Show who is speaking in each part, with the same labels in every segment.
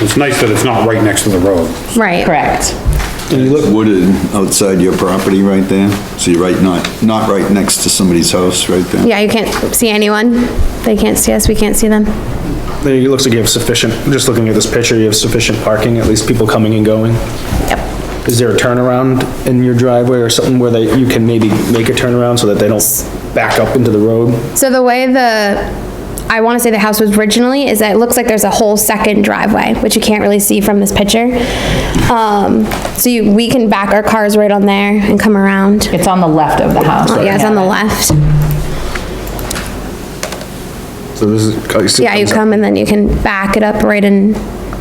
Speaker 1: It's nice that it's not right next to the road.
Speaker 2: Right.
Speaker 3: Correct.
Speaker 4: And you look wooded outside your property right there, so you're right, not, not right next to somebody's house right there.
Speaker 2: Yeah, you can't see anyone. They can't see us, we can't see them.
Speaker 5: There, it looks like you have sufficient, just looking at this picture, you have sufficient parking, at least people coming and going. Yep. Is there a turnaround in your driveway or something where they, you can maybe make a turnaround so that they don't back up into the road?
Speaker 2: So the way the, I want to say the house was originally, is that it looks like there's a whole second driveway, which you can't really see from this picture. Um, so you, we can back our cars right on there and come around. Uh,
Speaker 3: It's on the left of the house.
Speaker 2: Oh, Yeah, it's on the left.
Speaker 5: So this is.
Speaker 2: Yeah, you come and then you can back it up right in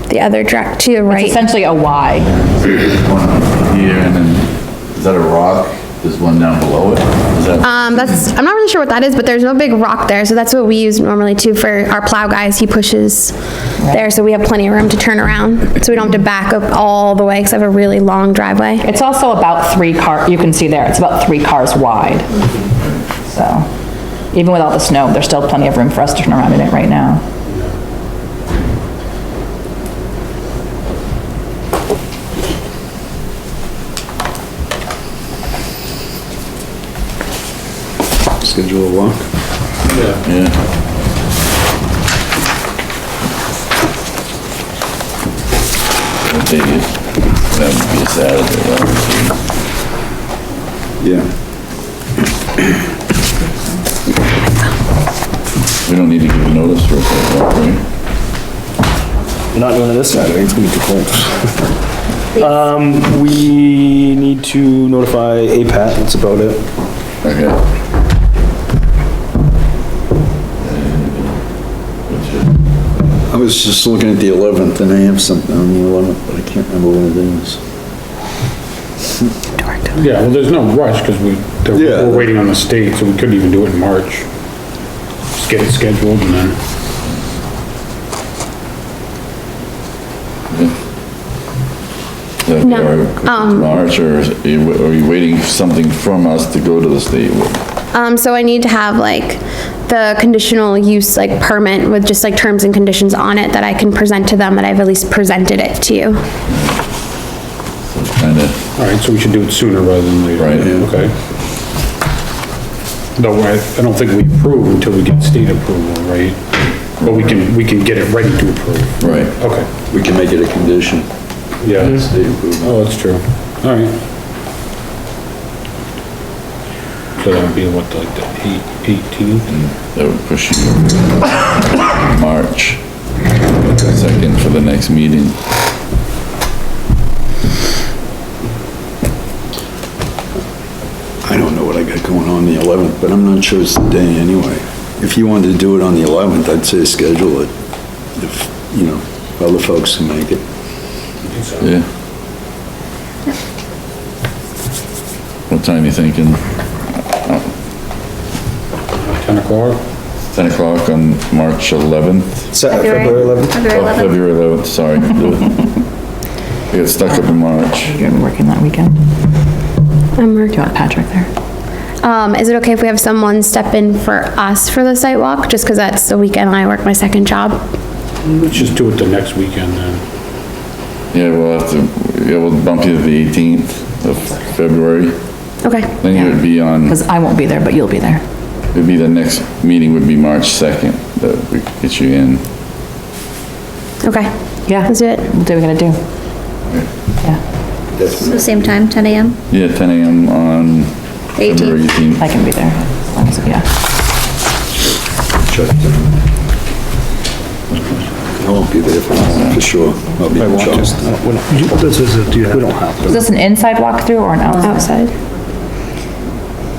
Speaker 2: the other direct to your right.
Speaker 3: Essentially a Y.
Speaker 6: One here and then, is that a rock? There's one down below it? Is that,
Speaker 2: Um, that's, I'm not really sure what that is, but there's no big rock there, so that's what we use normally too for our plow guys. He pushes there, so we have plenty of room to turn around, so we don't have to back up all the way, because I have a really long driveway.
Speaker 3: It's also about three car, you can see there, it's about three cars wide. So, even with all the snow, there's still plenty of room for us to turn around in it right now.
Speaker 4: Schedule a walk.
Speaker 6: yeah. I think it, that would be a Saturday, obviously.
Speaker 4: Yeah,
Speaker 6: We don't need to give a notice for a sidewalk, right?
Speaker 5: You're not doing it this Saturday, it's gonna be too cold. Um, we need to notify APAT, that's about it.
Speaker 6: Okay. And,
Speaker 4: I was just looking at the 11th and I have something on the 11th, but I can't remember what it is.
Speaker 1: Yeah, well, there's no rush, because we, they're-
Speaker 4: Yeah.
Speaker 1: we're waiting on the state, so we couldn't even do it in March. Just get it scheduled and then,
Speaker 6: what's it?
Speaker 2: No, um,
Speaker 6: March, or is it- are you waiting for something from us to go to the state?
Speaker 2: Um, so I need to have like the conditional use like permit with just like terms and conditions on it that I can present to them, that I've at least presented it to you.
Speaker 6: Kinda,
Speaker 1: all right, so we should do it sooner rather than later.
Speaker 6: Right, yeah.
Speaker 1: Okay. Though I, I don't think we approve until we get state approval, right? But we can, we can get it ready to approve.
Speaker 6: right.
Speaker 1: Okay,
Speaker 4: We can make it a condition.
Speaker 1: yeah.
Speaker 4: State approval.
Speaker 1: Oh, that's true. All right. So that would be what, like the eight- 18th?
Speaker 6: That would push you March second for the next meeting.
Speaker 4: I don't know what I got going on the 11th, but I'm not sure it's the day anyway. If you wanted to do it on the 11th, I'd say schedule it, if, you know, other folks can make it.
Speaker 6: Yeah. What time you thinking?
Speaker 1: 10 o'clock?
Speaker 6: Ten o'clock on March eleventh? Oh,
Speaker 5: Saturday, February 11th?
Speaker 6: February eleventh, sorry. I got stuck up in March.
Speaker 3: You're working that weekend. Do
Speaker 2: I'm working.
Speaker 3: you want Patrick there?
Speaker 2: Um, is it okay if we have someone step in for us for the site walk, just because that's the weekend I work my second job?
Speaker 1: Let's just do it the next weekend then.
Speaker 6: Yeah, we'll have to, yeah, we'll bump you to the eighteenth of February.
Speaker 2: Okay.
Speaker 6: Then you would be on,
Speaker 3: Because I won't be there, but you'll be there.
Speaker 6: it'd be the next meeting would be March second that we get you in.
Speaker 2: Okay.
Speaker 3: Yeah.
Speaker 2: Let's do it.
Speaker 3: What are we gonna do? Yeah,
Speaker 7: So same time, 10 AM,
Speaker 6: Yeah, ten AM on February
Speaker 7: 18th.
Speaker 6: eighteenth.
Speaker 3: I can be there. as long as- Yeah.
Speaker 4: Check them. I won't be there for long, for sure. I'll be in Charleston.
Speaker 5: This is, do you have? We don't have.
Speaker 3: Is this an inside walkthrough or an outside?
Speaker 2: Outside.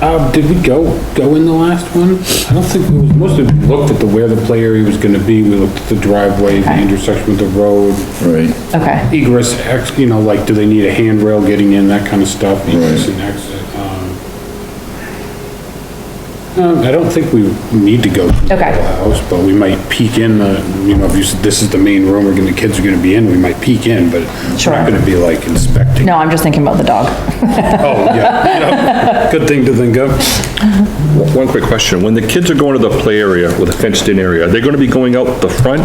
Speaker 1: Uh, did we go, go in the last one? I don't think, we mostly we looked at the, where the play area was gonna be, we looked at the driveway, the intersection with the road,
Speaker 6: Right,
Speaker 3: Okay,
Speaker 1: egress, ex, you know, like, do they need a handrail getting in, that kind of stuff, egress and exit. um, Um, I don't think we need to go through the
Speaker 3: Okay.
Speaker 1: whole house, but we might peek in the, you know, if you said, this is the main room, we're gonna, the kids are gonna be in, we might peek in, but we're
Speaker 3: Sure.
Speaker 1: not gonna be like inspecting.
Speaker 3: no, I'm just thinking about the dog.
Speaker 1: Oh, yeah, yeah, good thing to think of.
Speaker 8: One quick question, when the kids are going to the play area with a fenced-in area, are they gonna be going out the front